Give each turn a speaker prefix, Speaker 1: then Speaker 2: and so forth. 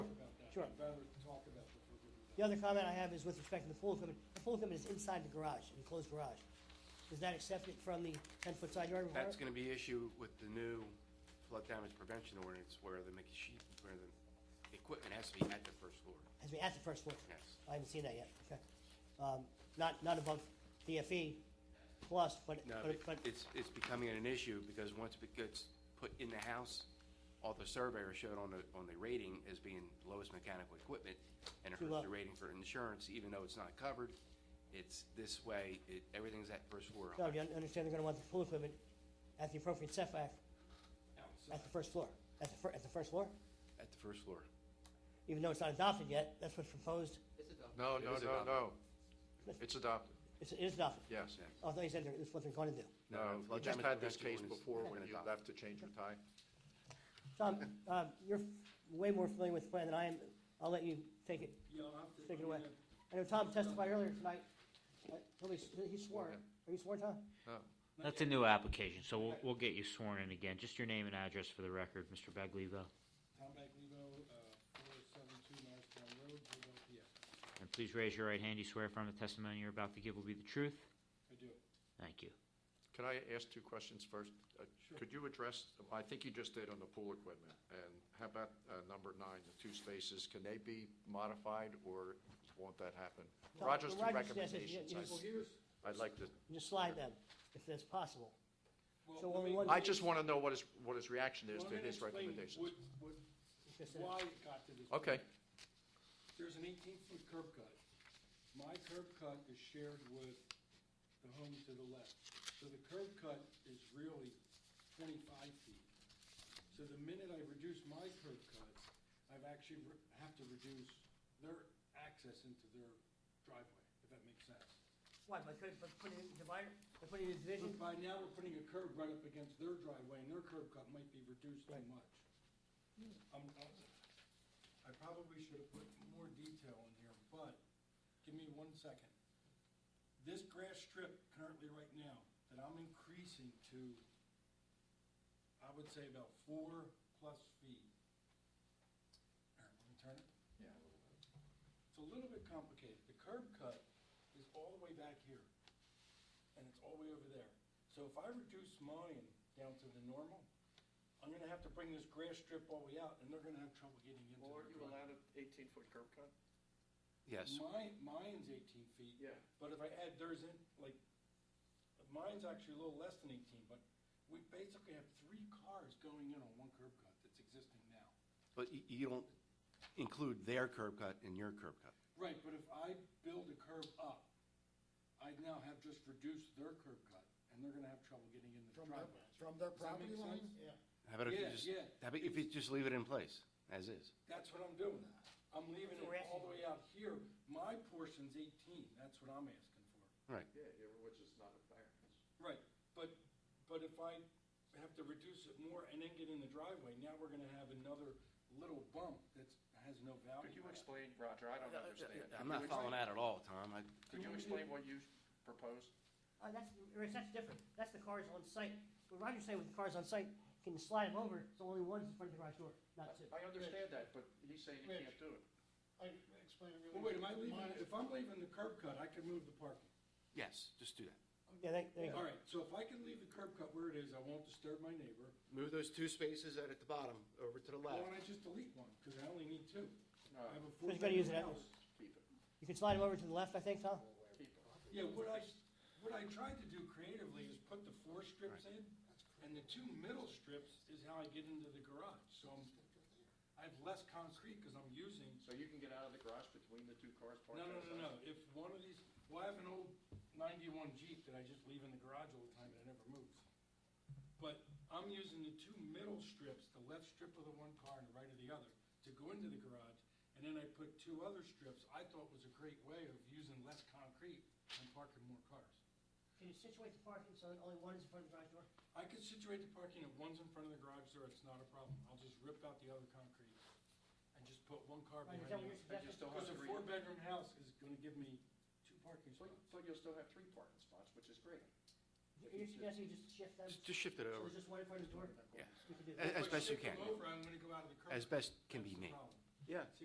Speaker 1: Sure.
Speaker 2: I'd rather talk about this with you.
Speaker 1: The other comment I have is with respect to the pool equipment. The pool equipment is inside the garage, an enclosed garage. Is that accepted from the ten-foot side yard requirement?
Speaker 3: That's gonna be issue with the new flood damage prevention ordinance where the machine, where the equipment has to be at the first floor.
Speaker 1: Has been at the first floor?
Speaker 3: Yes.
Speaker 1: I haven't seen that yet, okay. Um, not, not above DFE plus, but,
Speaker 3: No,
Speaker 1: but, but,
Speaker 3: it's, it's becoming an issue because once it gets put in the house, all the surveyor showed on the, on the rating as being lowest mechanical equipment and it
Speaker 1: Too
Speaker 3: hurts
Speaker 1: low.
Speaker 3: the rating for insurance, even though it's not covered. It's this way, it, everything's at first floor.
Speaker 1: no, you un- understand they're gonna want the pool equipment at the appropriate setback at the first floor, at the fir, at the first floor?
Speaker 3: At the first floor.
Speaker 1: Even though it's not adopted yet, that's what's proposed,
Speaker 4: No,
Speaker 3: It
Speaker 4: no,
Speaker 3: is
Speaker 4: no,
Speaker 3: adopted.
Speaker 4: no. It's adopted,
Speaker 1: it's, it is adopted.
Speaker 4: yes.
Speaker 1: Oh, I thought you said they're- that's what they're gonna do.
Speaker 3: No,
Speaker 4: No,
Speaker 3: no,
Speaker 4: you
Speaker 3: flood
Speaker 4: just
Speaker 3: damage
Speaker 4: had this
Speaker 3: prevention
Speaker 4: case
Speaker 3: ordinance
Speaker 4: before
Speaker 3: has
Speaker 4: when
Speaker 3: been
Speaker 4: you
Speaker 3: adopted.
Speaker 4: left to change your tie.
Speaker 1: Tom, um, you're way more familiar with the plan than I am. I'll let you take it,
Speaker 2: Yeah, I'll have to.
Speaker 1: take it away.
Speaker 2: yeah.
Speaker 1: I know Tom testified earlier tonight. Uh, He he swore. Are you sworn, Tom?
Speaker 5: That's a new application, so we'll, we'll get you sworn in again. Just your name and address for the record, Mr. Baglivo.
Speaker 2: Tom Baglivo, uh, four seven two Norristown Road, Riverview, PA.
Speaker 5: And please raise your right hand. You swear affirm the testimony you're about to give will be the truth?
Speaker 2: I do.
Speaker 5: Thank you.
Speaker 4: Can I ask two questions first? Uh, Could you address, I think you just did on the pool equipment, and how about uh, number nine, the two spaces, can they be modified, or won't that happen?
Speaker 1: Tom,
Speaker 4: Roger's two
Speaker 1: Roger suggests that you-
Speaker 4: recommendations,
Speaker 1: you
Speaker 4: I'd-
Speaker 1: just-
Speaker 2: Well, here's,
Speaker 4: I'd like to,
Speaker 1: Just slide them, if that's possible.
Speaker 2: well.
Speaker 1: So
Speaker 2: let
Speaker 1: only
Speaker 2: me-
Speaker 1: one-
Speaker 4: I just want to know what his, what his reaction is
Speaker 2: Well, I'm
Speaker 4: to
Speaker 2: gonna
Speaker 4: his
Speaker 2: explain
Speaker 4: recommendations.
Speaker 2: what- what-
Speaker 1: Just, uh,
Speaker 2: why it got to this. point.
Speaker 4: Okay,
Speaker 2: There's an eighteen-foot curb cut. My curb cut is shared with the home to the left. So the curb cut is really twenty-five feet. So the minute I reduce my curb cut, I've actually re- have to reduce their access into their driveway, if that makes sense.
Speaker 1: Why, by putting, by putting in divider, by putting in a division?
Speaker 2: But by now, we're putting a curb right up against their driveway, and their curb cut might be reduced too
Speaker 1: Right.
Speaker 2: much. I'm, I'm, I probably should have put more detail in here, but give me one second. This grass strip currently right now, that I'm increasing to, I would say about four plus feet. Here, let me turn it. It's a little bit complicated. The curb cut is all the way back here, and it's all the way over there. So if I reduce mine down to the normal, I'm gonna have to bring this grass strip all the way out, and they're gonna have trouble getting into
Speaker 6: Well, aren't you
Speaker 2: the driveway.
Speaker 6: allowed an eighteen-foot curb cut?
Speaker 3: Yes.
Speaker 2: Mine, mine's eighteen feet,
Speaker 6: Yeah.
Speaker 2: but if I add theirs in, like, mine's actually a little less than eighteen, but we basically have three cars going in on one curb cut that's existing now.
Speaker 3: But you, you don't include their curb cut in your curb cut.
Speaker 2: Right, but if I build a curb up, I now have just reduced their curb cut, and they're gonna have trouble getting in the
Speaker 7: From
Speaker 2: driveway.
Speaker 7: that, from that
Speaker 2: Does that make
Speaker 7: property line?
Speaker 2: sense?
Speaker 7: Yeah.
Speaker 3: How about if you
Speaker 2: Yeah,
Speaker 3: just,
Speaker 2: yeah.
Speaker 3: how about if you just leave it in place, as is?
Speaker 2: That's what I'm doing. I'm leaving it
Speaker 1: So we're
Speaker 2: all the way out here. My portion's eighteen, that's what I'm asking for.
Speaker 6: Yeah, yeah, which is not a variance.
Speaker 2: Right, but, but if I have to reduce it more and then get in the driveway, now we're gonna have another little bump that's, has no value.
Speaker 6: Could you explain, Roger, I don't understand.
Speaker 3: I'm not following that at all, Tom. I,
Speaker 6: Could you explain what you proposed?
Speaker 1: Uh, that's, Rich, that's different. That's the cars on site. What Roger's saying with the cars on site, you can slide them over, so only one's in front of the garage door, not two.
Speaker 6: I understand that, but he's saying you can't do it.
Speaker 7: I explained it really.
Speaker 2: Well, wait, am I leaving,
Speaker 7: Mine-
Speaker 2: if I'm leaving the curb cut, I can move the parking.
Speaker 3: yes, just do that.
Speaker 1: Yeah, they, they,
Speaker 2: All right, so if I can leave the curb cut where it is, I won't disturb my neighbor.
Speaker 3: Move those two spaces out at the bottom over to the
Speaker 2: Why
Speaker 3: left.
Speaker 2: don't I just delete one? Because I only need two.
Speaker 6: No,
Speaker 2: I have a
Speaker 1: Who's gonna use
Speaker 2: four-bedroom
Speaker 1: it?
Speaker 2: house.
Speaker 6: keep it,
Speaker 1: you can slide them over to the left, I think, Tom?
Speaker 6: keep it.
Speaker 2: Yeah, what I, what I tried to do creatively is put the four strips in, and the two middle strips is how I get into the garage. So I'm, I have less concrete because I'm using,
Speaker 6: So you can get out of the garage between the two cars
Speaker 2: no,
Speaker 6: parked
Speaker 2: no,
Speaker 6: outside?
Speaker 2: no, no. If one of these, well, I have an old ninety-one Jeep that I just leave in the garage all the time and it never moves. But I'm using the two middle strips, the left strip of the one car and the right of the other, to go into the garage. And then I put two other strips I thought was a great way of using less concrete and parking more cars.
Speaker 1: Can you situate the parking so that only one is in front of the garage door?
Speaker 2: I could situate the parking if one's in front of the garage door, it's not a problem. I'll just rip out the other concrete and just put one car
Speaker 1: Right,
Speaker 2: behind
Speaker 1: is that what
Speaker 2: it.
Speaker 1: you're suggesting?
Speaker 6: still
Speaker 2: Because
Speaker 6: have
Speaker 2: a
Speaker 6: three.
Speaker 2: four-bedroom house is gonna give me two parking
Speaker 6: So,
Speaker 2: spots.
Speaker 6: so you'll still have three parking spots, which is great.
Speaker 1: You're suggesting you just shift them, so
Speaker 3: Just- Just shift it over,
Speaker 1: there's just one in front of the door?
Speaker 3: Yeah.
Speaker 1: You can do that.
Speaker 2: If
Speaker 3: as
Speaker 2: I
Speaker 3: best you
Speaker 2: shift them
Speaker 3: can,
Speaker 2: over, I'm gonna go out of the curb.
Speaker 3: as best can
Speaker 2: That's
Speaker 3: be
Speaker 2: the
Speaker 3: made.
Speaker 2: problem.
Speaker 4: yeah.